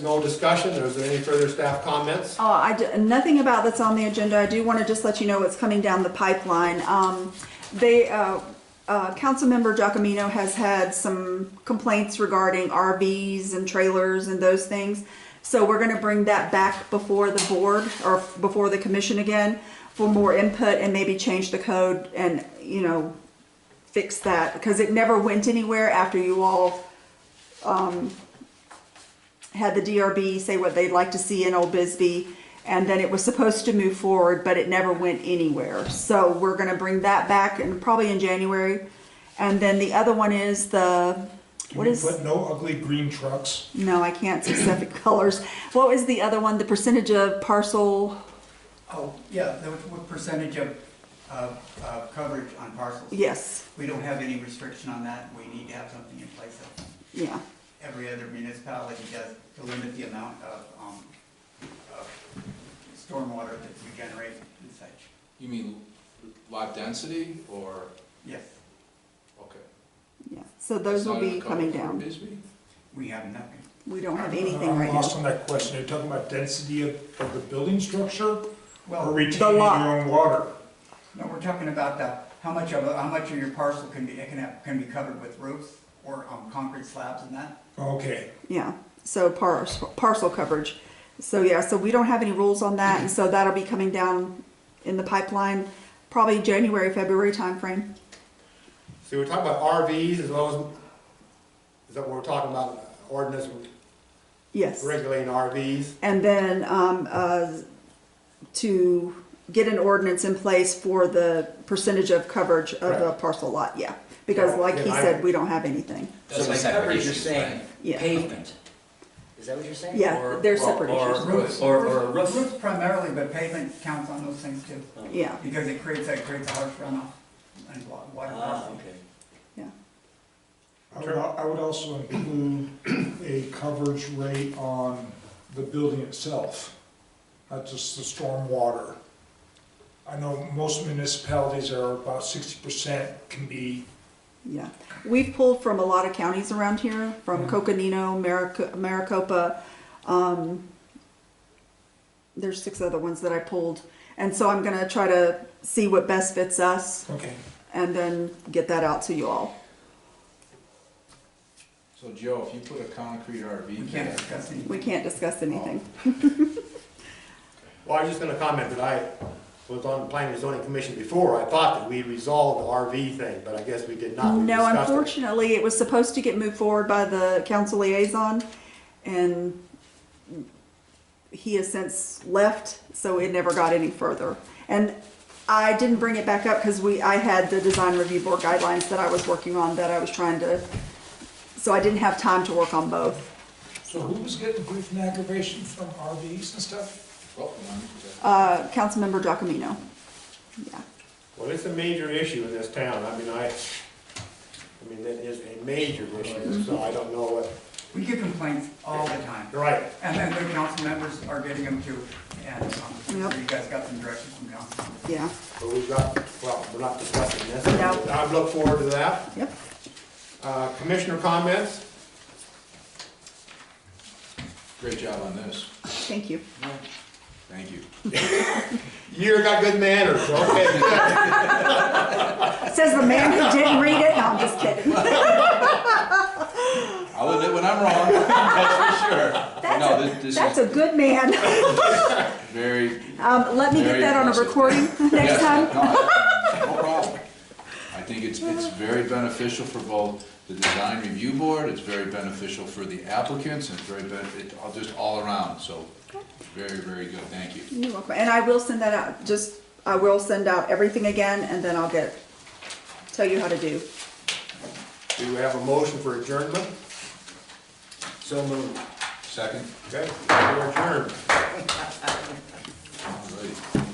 No discussion, or is there any further staff comments? Oh, I d- nothing about that's on the agenda. I do want to just let you know what's coming down the pipeline. Um, they, uh, uh, Councilmember Giacomino has had some complaints regarding RVs and trailers and those things. So we're going to bring that back before the board or before the commission again for more input and maybe change the code and, you know, fix that because it never went anywhere after you all um, had the DRB say what they'd like to see in Old Bisbee, and then it was supposed to move forward, but it never went anywhere. So we're gonna bring that back and probably in January. And then the other one is the, Can what we is, put no ugly green trucks? no, I can't specific colors. What was the other one? The percentage of parcel, Oh, yeah, the what percentage of, of, of coverage on parcels? yes, We don't have any restriction on that, we need to have something in place. that yeah. Every other municipality does to limit the amount of, um, of stormwater that you generate and such. You mean lot density or, Yes, okay. yeah. So those will That's not be in the coming code for down. Bisbee? we have nothing. We don't have anything I'm right lost now. on that question. Are you talking about density of, of the building structure or Well, retaining your lot. own water? no, we're talking about the, how much of, how much of your parcel can be, can have, can be covered with roofs or, um, concrete slabs and that? Okay, Yeah, so parcel, parcel coverage. So yeah, so we don't have any rules on that, and so that'll be coming down in the pipeline, probably January, February timeframe. So we're talking about RVs as well as, is that what we're talking about, ordinance Yes. regulating RVs? And then, um, uh, to get an ordinance in place for the percentage of coverage of the Correct. parcel lot, yeah. Because Right, like he and I- said, we don't have anything. So by coverage, you're saying Yeah. pavement? Is that what you're saying? Yeah, Or- they're or- separate or- issues. Roofs. Or, or a Roofs roof? primarily, but pavement counts on those things too. Yeah, Because it creates, that creates a harsh runoff and wa- water Ah, crossing. okay. yeah. I would, al- I would also include a coverage rate on the building itself, not just the stormwater. I know most municipalities are about sixty percent can be, Yeah, we've pulled from a lot of counties around here, from Coconino, Maric- Maricopa. Um, there's six other ones that I pulled, and so I'm gonna try to see what best fits us, okay, and then get that out to you all. So Joe, if you put a concrete RV We can't there, discuss anything. We can't discuss anything. Well, I was just gonna comment that I was on the planning and zoning commission before, I thought that we resolved the RV thing, but I guess we did not. We No, discussed it. unfortunately, it was supposed to get moved forward by the council liaison, and he has since left, so it never got any further. And I didn't bring it back up because we, I had the design review board guidelines that I was working on that I was trying to, so I didn't have time to work on both. so who was getting grief and aggravation from RVs and stuff? well, um, Uh, Councilmember Giacomino. Yeah, Well, it's a major issue in this town, I mean, I, I mean, that is a major Mm-hmm. issue, so I don't know what, We get complaints all the time, you're right. and then the council members are getting them too, and um, so Yep. you guys got some direction from council. yeah, But we've got, well, we're not discussing this. No. I look forward to that. yep. Uh, Commissioner comments? great job on this, Thank you. thank you. You're got good manners, okay. Says the man who didn't read it. No, I'm just kidding. I'll admit when I'm wrong, that's for sure. But That's No, a- this- this That's is a good man. very. Um, let me get very that on a impressive. recording next Yes, time. No no problem. I think it's, it's very beneficial for both the design review board, it's very beneficial for the applicants, and it's very, ben- it- all- just all around, so very, very good, thank you. You're welcome. And I will send that out, just, I will send out everything again and then I'll get, tell you how to do. Do we have a motion for adjournment? So moved. Second? Okay, we're adjourned. All righty.